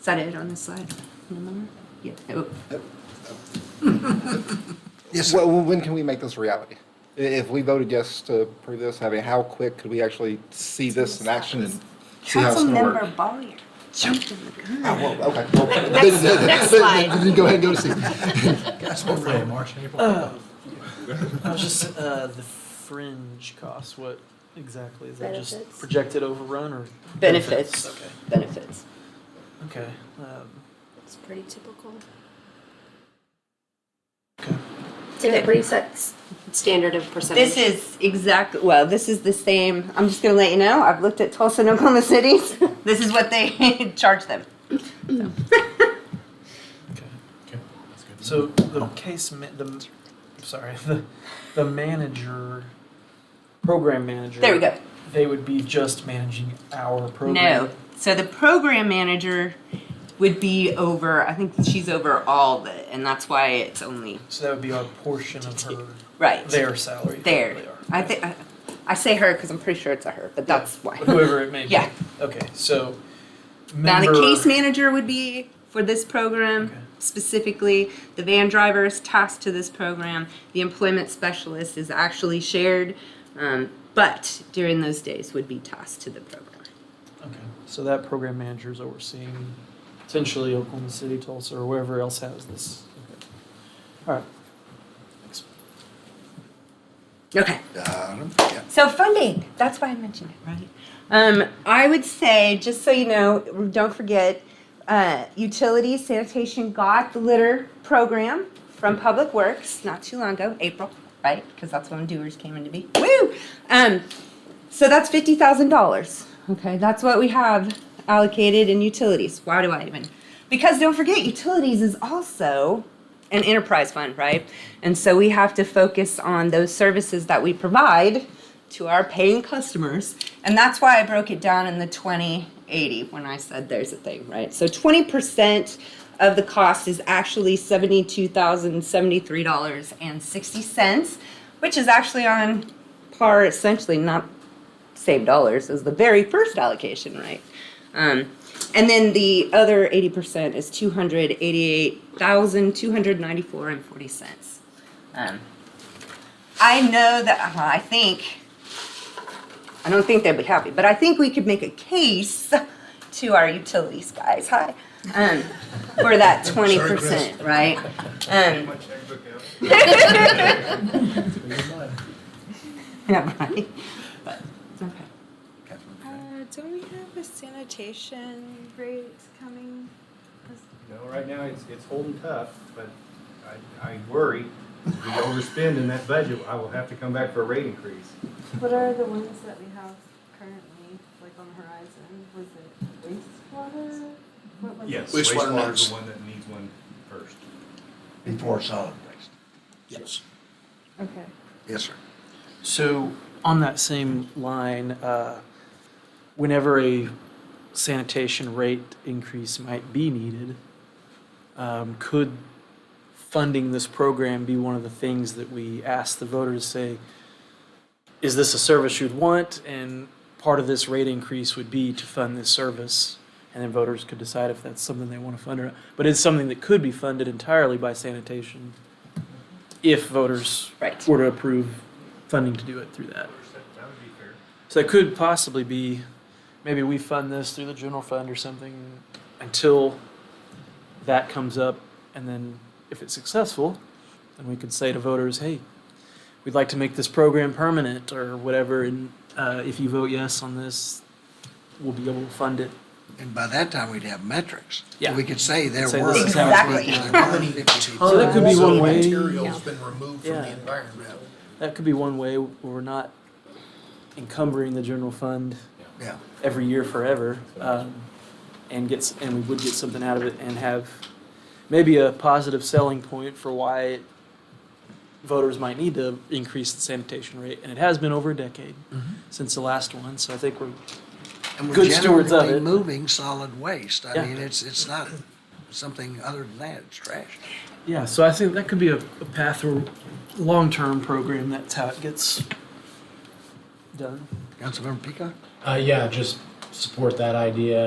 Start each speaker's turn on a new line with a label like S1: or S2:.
S1: Is that it on this slide? Anymore? Yeah. Oh,
S2: Yes. Well, when can we make this a reality? I- If we voted yes to approve this, I mean, how quick could we actually see this in action and see how it's going to work?
S3: Councilmember Boyer.
S1: Jumping the gun.
S2: Oh, well, Okay. well, then-
S1: Next-
S2: then-
S1: next
S2: then-
S1: slide.
S2: then Go ahead, and go to see.
S4: That's hopefully in March, April.
S5: Oh. I was just uh, the fringe costs. What exactly is that?
S3: Benefits.
S5: Just projected overrun or
S1: Benefits.
S5: Okay.
S1: Benefits.
S5: Okay. Um,
S3: It's pretty typical.
S5: okay.
S3: It's a pretty set standard of percentage.
S1: This is exactly, well, this is the same, I'm just gonna let you know, I've looked at Tulsa and Oklahoma cities. This is what they charge them.
S5: Okay.
S4: Okay, that's good.
S5: So the case ma- the I'm sorry the the manager program manager.
S1: There we go.
S5: They would be just managing our program.
S1: No, so the program manager would be over, I think she's over all the, and that's why it's only,
S5: So that would be our portion of her
S1: right.
S5: their salary.
S1: There.
S5: They are.
S1: I think, I- I say her because I'm pretty sure it's a her, but that's why.
S5: Whoever it may be.
S1: Yeah.
S5: Okay. So.
S1: Now, the
S5: member-
S1: case manager would be for this program
S5: Okay.
S1: specifically. The van driver is tasked to this program. The employment specialist is actually shared, um, but during those days would be tasked to the program.
S5: Okay, so that program manager is overseeing potentially Oklahoma City, Tulsa, or wherever else has this. Okay. All right. Thanks.
S1: Okay.
S2: Uh, yeah.
S1: So funding, that's why I mentioned it, right? Um, I would say, just so you know, don't forget, uh, utilities, sanitation got the litter program from Public Works not too long ago, April, right? Because that's when doers came into be. Woo! Um, so that's fifty thousand dollars. Okay, that's what we have allocated in utilities. Why do I even? Because don't forget, utilities is also an enterprise fund, right? And so we have to focus on those services that we provide to our paying customers. And that's why I broke it down in the 2080 when I said there's a thing, right? So 20% of the cost is actually $72,073.60, which is actually on par essentially, not same dollars as the very first allocation, right? Um, and then the other 80% is 288,294 and 40 cents. Um, I know that, uh, I think, I don't think they'd be happy, but I think we could make a case to our utilities guys, hi, um, for that 20%, right? Um, yeah, right. But, okay.
S3: Uh, don't we have a sanitation rate coming?
S6: You know, right now, it's, it's holding tough, but I, I worry, if we overspend in that budget, I will have to come back for a rate increase.
S3: What are the ones that we have currently, like on the horizon? Was it wastewater? What was
S6: Yes,
S4: Wastewater
S6: wastewater is
S4: next.
S6: the one that needs one first.
S2: Before solid waste.
S4: Yes,
S3: it? Okay.
S2: Yes, sir.
S5: So on that same line, uh, whenever a sanitation rate increase might be needed, um, could funding this program be one of the things that we ask the voter to say, is this a service you'd want? And part of this rate increase would be to fund this service. And then voters could decide if that's something they want to fund or not. But it's something that could be funded entirely by sanitation if voters
S1: Right.
S5: were to approve funding to do it through that.
S6: That would be fair.
S5: So it could possibly be, maybe we fund this through the general fund or something until that comes up, and then if it's successful, then we could say to voters, hey, we'd like to make this program permanent or whatever, and uh, if you vote yes on this, we'll be able to fund it.
S7: And by that time, we'd have metrics.
S5: Yeah.
S7: We could say there
S5: Say
S7: were.
S5: this is how
S1: it's Exactly. working.
S7: There were 50
S5: So that could be
S4: Tons of
S5: one way.
S4: Material's been removed from the
S5: Yeah.
S4: environment.
S5: That could be one way where we're not encumbering the general fund
S7: Yeah.
S5: every year forever, um, and gets and we would get something out of it and have maybe a positive selling point for why voters might need to increase the sanitation rate. And it has been over a decade since the last one, so I think we're
S7: And we're
S5: Good stewards of
S7: generally
S5: it.
S7: Moving solid waste. I
S5: Yeah.
S7: mean, it's, it's not something other than that, it's trash.
S5: yeah. So I think that could be a, a path or long term program. That's how it gets done.
S7: Councilmember Peacock?
S4: Uh, yeah, just support that idea